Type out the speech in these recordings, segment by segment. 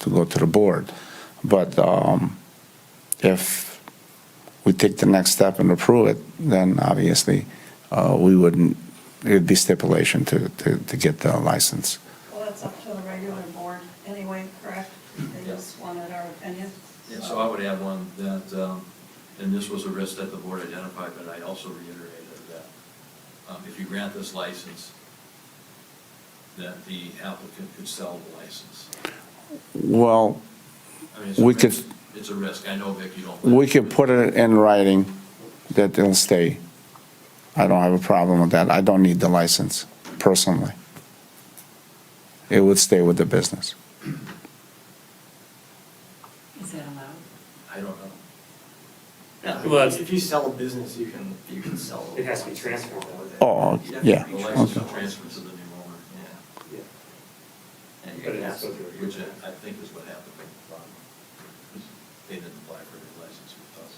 to go to the board. But um, if we take the next step and approve it, then obviously, uh, we wouldn't, it'd be stipulation to, to, to get the license. Well, that's up to the regular board anyway, correct? They just wanted our opinion. Yeah, so I would add one that, um, and this was a risk that the board identified, but I also reiterated that um, if you grant this license, that the applicant could sell the license. Well, I mean, it's a We could- risk- It's a risk. I know, Vic, you don't. we could put it in writing that it'll stay. I don't have a problem with that. I don't need the license personally. It would stay with the business. Is that allowed? I don't know. Yeah, Well, If you sell a business, you can, you can sell. It has to be transferred, though. Oh, yeah. The license okay. would transfer to the new owner, yeah. Yeah. And But you it can has ask, to go through a which hearing. I I think is what happened with the problem. They didn't apply for their license with us,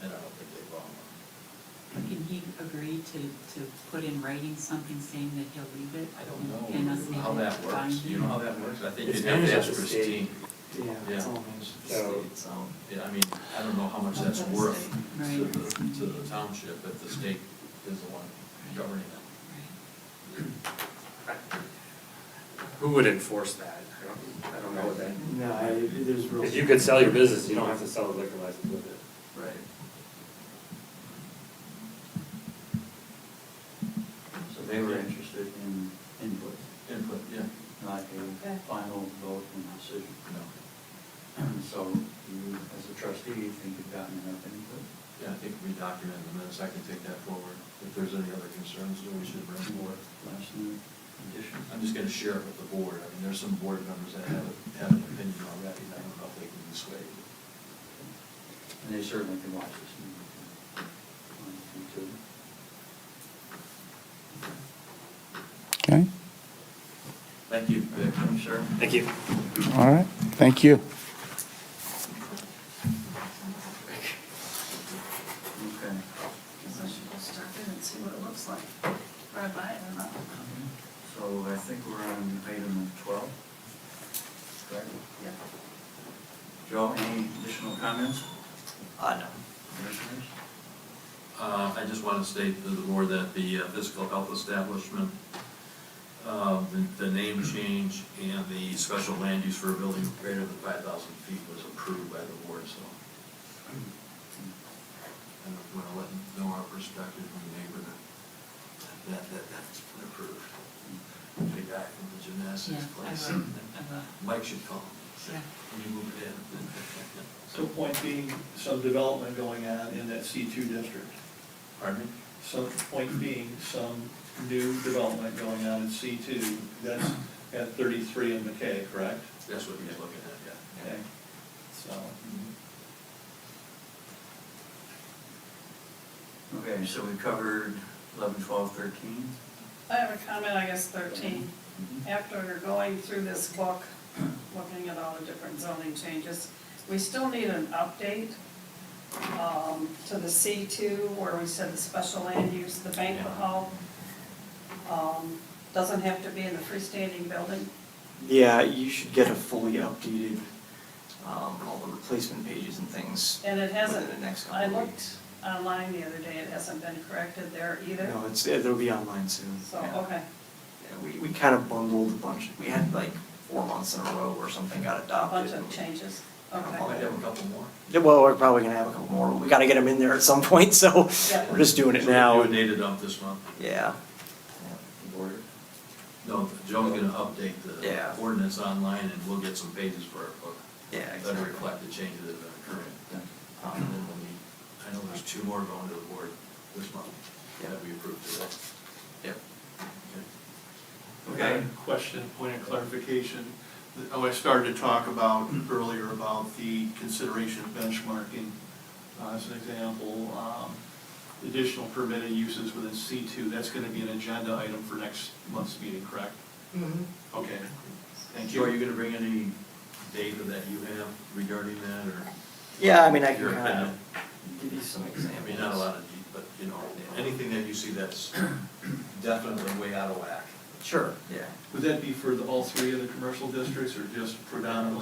and I don't think they bought one. Can he agree to, to put in writing something saying that he'll leave it? I don't know And us make how it that bind works, you know how that works, I think It's you'd have managed to at ask the Christine. state. Yeah, it's all managed. So- It's, um, yeah, I mean, I don't know how much that's worth to Right. the, to the township, but the state is the one governing it. Who would enforce that? I don't, I don't know what that. No, I, there's rules. If you could sell your business, you don't have to sell the liquor license with it. Right. So they were interested in input, Input, yeah, not a final vote and decision. no, So you, as a trustee, you think you've gotten enough input? yeah, I think we documented the minutes, I can take that forward, if there's any other concerns, that we should bring forward. Last minute addition? I'm just gonna share it with the board, I mean, there's some board members that have, have an opinion already, and I don't know if they can be swayed. And they certainly can watch this. and they can- on YouTube. Okay, Thank you, Vic, I'm sure. Thank you. all right, thank you. Okay. Because I should go start in and see what it looks like, or I buy it or not. So I think we're on item twelve. Correct? Yeah. Joe, any additional comments, Uh, no. commissioners? Uh, I just want to state to the board that the uh, physical health establishment, um, the- the name change and the special land use for a building greater than 5,000 feet was approved by the board, so. And I want to let them know our perspective from the neighbor that- that, that, that's been approved. The guy from the Yeah, gymnastics I place. will, I will. Mike should call him. Yeah. Can you move it in? So point being, some development going on in that C2 district. Pardon me? Some, point being, some new development going on in C2, that's at 33 in McKay, correct? That's what he's looking at, yeah. Okay, so. Okay, so we covered eleven, twelve, thirteen. I have a comment, I guess thirteen. Mm-hmm. After you're going through this book, looking at all the different zoning changes, we still need an update um, to the C two, where we said the special land use, the banquet hall, um, doesn't have to be in the freestanding building. Yeah, you should get a fully updated, um, all the replacement pages and things. And it hasn't, Within the next couple I of looked weeks. online the other day, it hasn't been corrected there either. No, it's, it'll be online soon. So, yeah. okay, Yeah, we, we kind of bundled a bunch, we had like four months in a row where something got a adopted. bunch of changes, Oh, I okay. might have a couple more. Yeah, well, we're probably gonna have a couple more, but we gotta get them in there at some point, so Yeah. we're just doing it So now. You dated up this month? Yeah. No, Joe's gonna update the Yeah. ordinance online and we'll get some pages for our book. Yeah, That exactly. reflect the changes that are occurring. Um, and then we'll need- I know there's two more going to the board this month that we approved today. Yep. Okay. Okay, question, point of clarification. Oh, I started to talk about earlier about the consideration of benchmarking. Uh, As an example, um, additional permitted uses within C2, that's going to be an agenda item for next month's meeting, correct? Okay, thank Joe, are you you. gonna bring any data that you have regarding that or? Yeah, I mean, I Your can kind opinion. of give you some I examples. mean, not a lot of, deep, but you know, anything that you see that's definitely way out of whack. Sure, yeah. Would that be for the- all three of the commercial districts or just predominantly